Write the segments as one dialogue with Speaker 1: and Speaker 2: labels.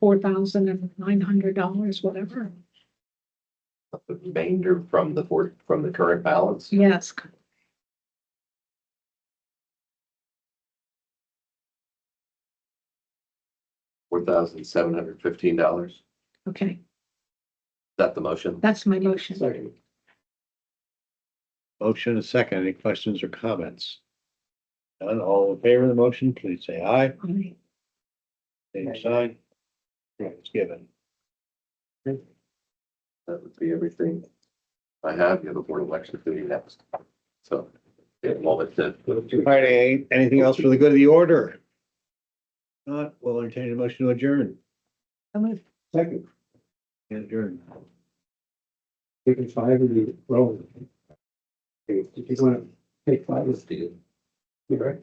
Speaker 1: four thousand and nine hundred dollars, whatever.
Speaker 2: The remainder from the fourth, from the current balance.
Speaker 1: Yes.
Speaker 2: Four thousand seven hundred fifteen dollars. Is
Speaker 1: Okay,
Speaker 2: that the motion?
Speaker 1: that's my motion.
Speaker 3: Motion and a second. Any questions or comments? None. All in favor of the motion, please say aye.
Speaker 1: Aye.
Speaker 3: Same sign. Right, it's given.
Speaker 2: That would be everything I have. You have a board election committee next. So, yeah, moment to.
Speaker 3: All right, any- anything else for the good of the order? Not, we'll entertain a motion to adjourn.
Speaker 1: I move.
Speaker 4: Second,
Speaker 3: Adjourn.
Speaker 4: taking five and you roll. If you wanna take five, let's do. You all right?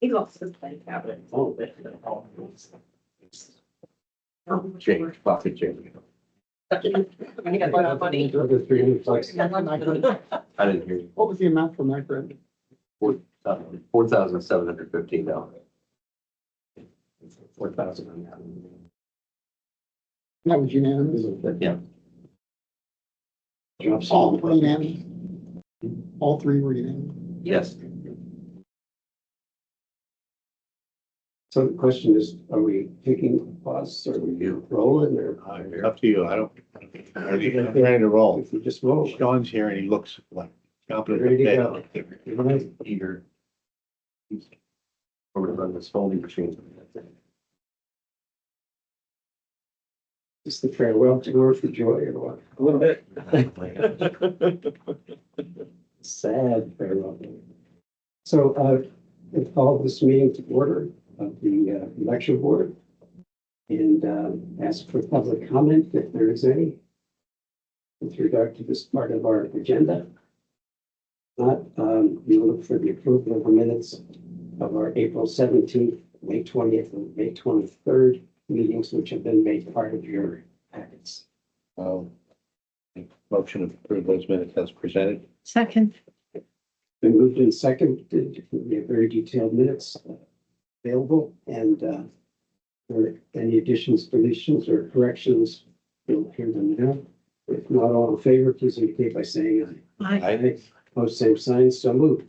Speaker 5: He lost his play cabinet.
Speaker 2: Change, pocket change.
Speaker 5: He got a lot of money.
Speaker 4: Another three hundred bucks.
Speaker 5: He got a lot of money.
Speaker 2: I didn't hear you.
Speaker 4: What was the amount for my friend?
Speaker 2: Four thousand seven hundred fifteen dollars. Four thousand.
Speaker 4: That was unanimous.
Speaker 2: Yeah.
Speaker 4: All three unanimous. All three were unanimous.
Speaker 2: Yes.
Speaker 4: So the question is, are we taking a pause or are we rolling or?
Speaker 3: Up to you. I don't. I'm Ready to roll.
Speaker 4: If we just roll.
Speaker 3: Sean's here and he looks like competent.
Speaker 4: Ready to go.
Speaker 2: Eager. We're gonna run this folding machine.
Speaker 4: Just the farewell tour for joy or what?
Speaker 2: A little bit.
Speaker 4: Sad farewell. tour. So uh, I called this meeting to order of the uh, lecture board and um, ask for public comment if there is any with regard to this part of our agenda. Not, um, you look for the approval of the minutes of our April seventeenth, May twentieth, and May twenty-third meetings, which have been made part of your packets.
Speaker 3: Um, Motion to approve those minutes as presented.
Speaker 1: Second,
Speaker 4: Been moved in second, we have very detailed minutes uh, available and uh, for any additions, deletions or corrections, you'll hear them now. If not all in favor, please indicate by saying
Speaker 1: aye.
Speaker 4: aye. Aye. Post same sign, so moved.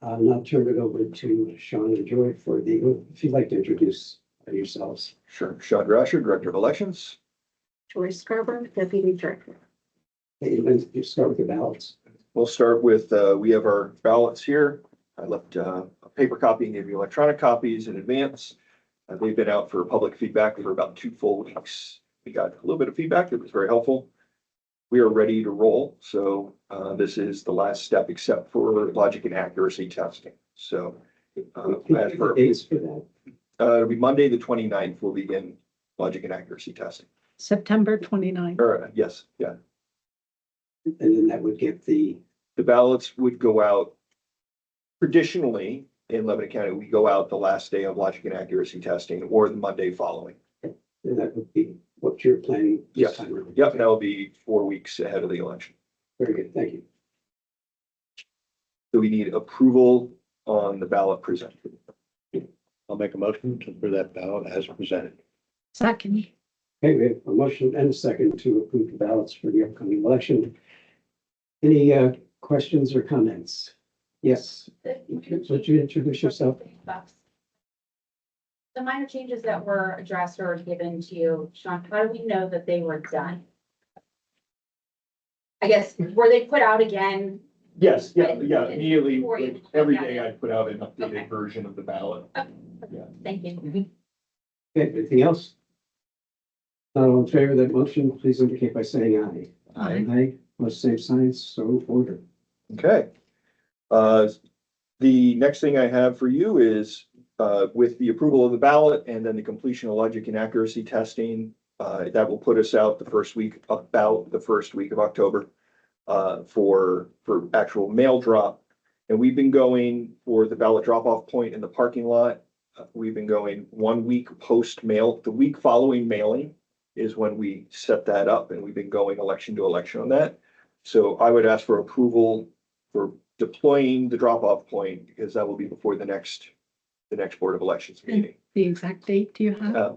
Speaker 4: I'll now turn it over to Sean and Joy for the, if you'd like to introduce yourselves.
Speaker 6: Sure. Shad Rasher, Director of Elections.
Speaker 5: Troy Scarborough, Deputy Director.
Speaker 4: Hey, let's just start with the ballots.
Speaker 6: We'll start with, uh, we have our ballots here. I left, uh, a paper copy and gave you electronic copies in advance. Uh, they've been out for public feedback for about two full weeks. We got a little bit of feedback that was very helpful. We are ready to roll, so, uh, this is the last step except for logic and accuracy testing. So, uh, as
Speaker 4: Give
Speaker 6: for,
Speaker 4: the Dates for that.
Speaker 6: uh, it'll be Monday, the 29th, we'll begin logic and accuracy testing.
Speaker 1: September twenty-ninth.
Speaker 6: Or, uh, yes, yeah.
Speaker 4: And then that would give the,
Speaker 6: the ballots would go out. Traditionally, in Lebanon County, we go out the last day of logic and accuracy testing or the Monday following.
Speaker 4: and that would be what you're planning. this
Speaker 6: Yes.
Speaker 4: time around.
Speaker 6: Yep, that'll be four weeks ahead of the election.
Speaker 4: Very good, thank you.
Speaker 6: So we need approval on the ballot presented.
Speaker 3: I'll make a motion to approve that ballot as presented.
Speaker 1: Second,
Speaker 4: Okay, we have a motion and a second to approve the ballots for the upcoming election. Any uh, questions or comments? Yes, would you introduce yourself?
Speaker 7: The minor changes that were addressed or given to you, Sean, how do we know that they were done? I guess, were they put out again?
Speaker 6: Yes,
Speaker 7: yeah, yeah, immediately, like, every day I
Speaker 6: put out an
Speaker 7: updated
Speaker 6: version of the ballot.
Speaker 7: Thank you.
Speaker 4: Okay, anything else? Not all in favor of that motion, please indicate by saying aye.
Speaker 1: Aye.
Speaker 4: Aye, most same signs, so ordered.
Speaker 6: Okay. Uh, The next thing I have for you is uh, with the approval of the ballot and then the completion of logic and accuracy testing, uh, that will put us out the first week, about the first week of October uh, for, for actual mail drop. And we've been going for the ballot drop-off point in the parking lot. Uh, We've been going one week post mail. The week following mailing is when we set that up and we've been going election to election on that. So I would ask for approval for deploying the drop-off point, because that will be before the next, the next Board of Elections meeting.
Speaker 1: the exact date do you have?
Speaker 6: Uh,